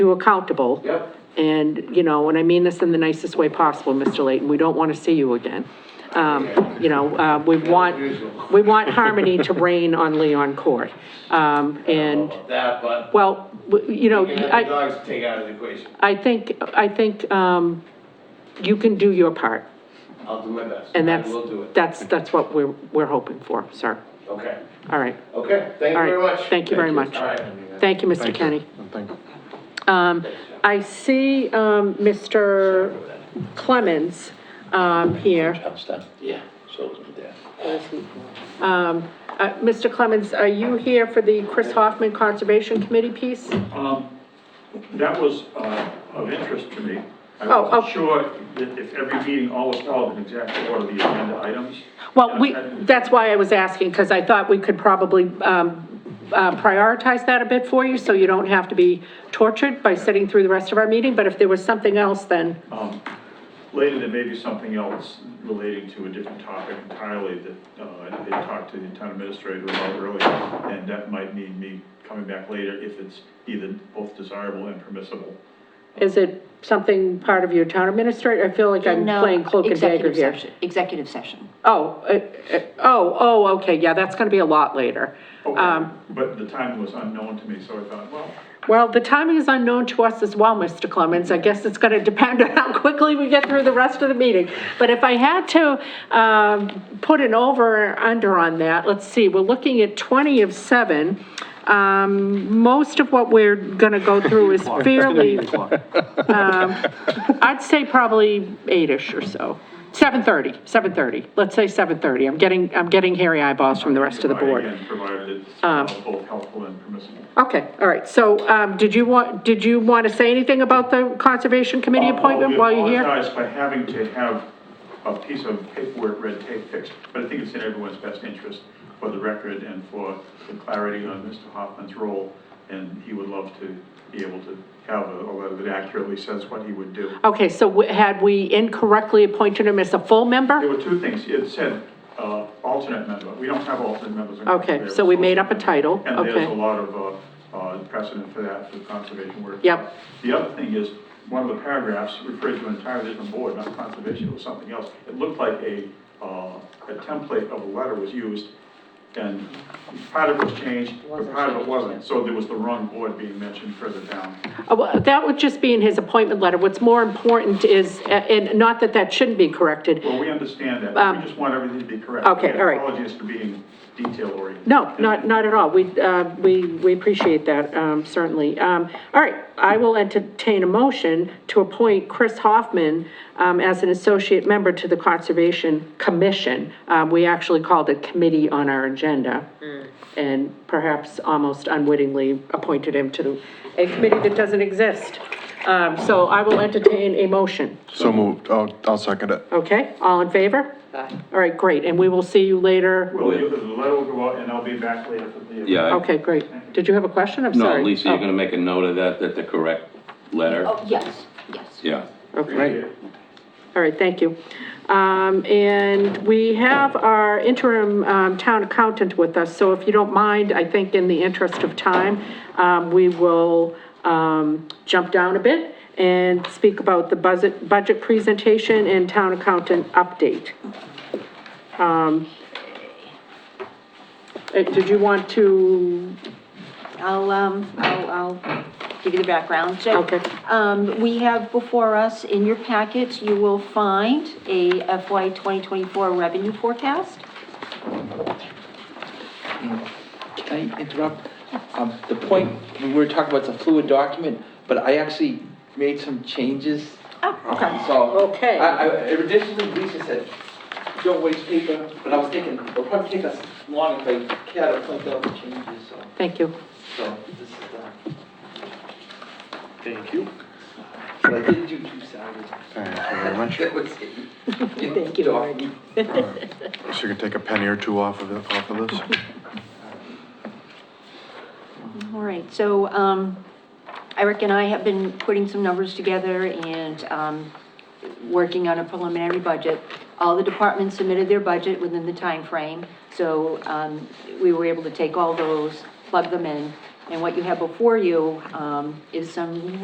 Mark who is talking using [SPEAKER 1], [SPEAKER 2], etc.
[SPEAKER 1] you accountable.
[SPEAKER 2] Yep.
[SPEAKER 1] And, you know, and I mean this in the nicest way possible, Mr. Layton, we don't want to see you again. Um, you know, uh, we
[SPEAKER 2] usual.
[SPEAKER 1] want, we want harmony to reign on Leon Court. Um, and,
[SPEAKER 2] About that, but
[SPEAKER 1] well, w- you know,
[SPEAKER 2] we can have the
[SPEAKER 1] I,
[SPEAKER 2] dogs take out of the equation.
[SPEAKER 1] I think, I think, um, you can do your part,
[SPEAKER 2] I'll do my best.
[SPEAKER 1] and that's,
[SPEAKER 2] I will do it.
[SPEAKER 1] that's, that's what we're, we're hoping for, sir.
[SPEAKER 2] Okay,
[SPEAKER 1] All right,
[SPEAKER 2] okay, thank you
[SPEAKER 1] All right.
[SPEAKER 2] very much.
[SPEAKER 1] Thank you very much.
[SPEAKER 2] All right.
[SPEAKER 1] thank you, Mr. Kenny. Um, I see, um, Mr. Clemens, um, here.
[SPEAKER 2] Yeah.
[SPEAKER 1] Um, uh, Mr. Clemens, are you here for the Chris Hoffman Conservation Committee piece?
[SPEAKER 3] Um, That was uh, of interest to me. I
[SPEAKER 1] Oh,
[SPEAKER 3] wasn't
[SPEAKER 1] okay.
[SPEAKER 3] sure that if every meeting always followed an exact order of the agenda items.
[SPEAKER 1] Well, we,
[SPEAKER 3] And I didn't-
[SPEAKER 1] that's why I was asking, because I thought we could probably um, uh, prioritize that a bit for you, so you don't have to be tortured by sitting through the rest of our meeting, but if there was something else, then,
[SPEAKER 3] um, Later, there may be something else relating to a different topic entirely that uh, they talked to the town administrator about earlier, and that might need me coming back later if it's either both desirable and permissible.
[SPEAKER 1] is it something part of your town administrator? I feel like I'm
[SPEAKER 4] No,
[SPEAKER 1] playing cloak and dagger
[SPEAKER 4] executive
[SPEAKER 1] here.
[SPEAKER 4] session- Executive session.
[SPEAKER 1] Oh, uh, uh, oh, oh, okay, yeah, that's gonna be a lot later. Um,
[SPEAKER 3] Okay, But the time was unknown to me, so I thought, well,
[SPEAKER 1] Well, the timing is unknown to us as well, Mr. Clemens. I guess it's going to depend on how quickly we get through the rest of the meeting. But if I had to um, put an over or under on that, let's see, we're looking at 20 of 7. Um, Most of what we're going to go through is fairly, um, I'd say probably 8-ish or so. 7:30, 7:30. Let's say 7:30. I'm getting, I'm getting hairy eyeballs from the rest of the board. Um,
[SPEAKER 3] Again, provided it's uh, both helpful and permissible.
[SPEAKER 1] Okay, all right, so, um, did you want, did you want to say anything about the Conservation Committee appointment while you're
[SPEAKER 3] I
[SPEAKER 1] here?
[SPEAKER 3] Uh, apologize for having to have a piece of paperwork red tape fixed, but I think it's in everyone's best interest for the record and for the clarity on Mr. Hoffman's role, and he would love to be able to have a a letter that accurately says what he would do.
[SPEAKER 1] Okay, so w- had we incorrectly appointed him as a full
[SPEAKER 3] There
[SPEAKER 1] member?
[SPEAKER 3] were two things, it said uh, alternate member, we don't have alternate members. in
[SPEAKER 1] Okay,
[SPEAKER 3] Conservation.
[SPEAKER 1] so we made up a title,
[SPEAKER 3] And
[SPEAKER 1] okay.
[SPEAKER 3] there's a lot of uh, uh, precedent for that, for conservation work.
[SPEAKER 1] Yep.
[SPEAKER 3] The other thing is, one of the paragraphs referred to an entirely different board, not conservation, it was something else. It looked like a, uh, a template of a letter was used, and part of it was changed, but part of it wasn't. So there was the wrong board being mentioned further down.
[SPEAKER 1] Uh, well, That would just be in his appointment letter. What's more important is, a- and not that that shouldn't be corrected.
[SPEAKER 3] Well, we understand that, but we just want everything to be correct.
[SPEAKER 1] Um, okay,
[SPEAKER 3] Again,
[SPEAKER 1] all right.
[SPEAKER 3] Apologies for being detail-oriented.
[SPEAKER 1] No, not, not at all. We, uh, we, we appreciate that, um, certainly. Um, all right, I will entertain a motion to appoint Chris Hoffman, um, as an associate member to the Conservation Commission. Um, we actually called it committee on our agenda. And perhaps almost unwittingly appointed him to a committee that doesn't exist. Um, so I will entertain a motion.
[SPEAKER 5] So moved. I'll, I'll second it.
[SPEAKER 1] Okay, all in favor? Aye. All right, great. And we will see you later.
[SPEAKER 3] Well, you- the letter will go out, and I'll be back later for the.
[SPEAKER 6] Yeah, I-
[SPEAKER 1] Okay, great. Did you have a question? I'm sorry.
[SPEAKER 6] no, Lisa,
[SPEAKER 1] Oh.
[SPEAKER 6] you're gonna make a note of that, that the correct letter?
[SPEAKER 4] Oh, yes, yes.
[SPEAKER 6] Yeah.
[SPEAKER 1] Okay, all right, thank you. Um, and we have our interim, um, town accountant with us, so if you don't mind, I think in the interest of time, um, we will, um, jump down a bit and speak about the budget, budget presentation and town accountant update. Um, eh, did you want to,
[SPEAKER 4] I'll, um, I'll, I'll give you the background. So,
[SPEAKER 1] Okay.
[SPEAKER 4] Um, we have before us, in your packets, you will find a FY 2024 revenue forecast.
[SPEAKER 7] Can I interrupt? Um, the point, we were talking about the fluid document, but I actually made some changes.
[SPEAKER 4] Oh, okay.
[SPEAKER 7] So.
[SPEAKER 1] Okay.
[SPEAKER 7] I, I, additionally, Lisa said, don't waste paper, but I was thinking, it'll probably take us long if I care to point out the changes, so,
[SPEAKER 1] thank you.
[SPEAKER 7] so this is, uh. Thank you. But I did do two salaries.
[SPEAKER 5] Thank you very much.
[SPEAKER 7] That was it. Thank you,
[SPEAKER 5] So you can take a penny or two off of, it- off of this?
[SPEAKER 4] All right, so um, Eric and I have been putting some numbers together and um, working on a preliminary budget. All the departments submitted their budget within the time frame, so um, we were able to take all those, plug them in. And what you have before you um, is some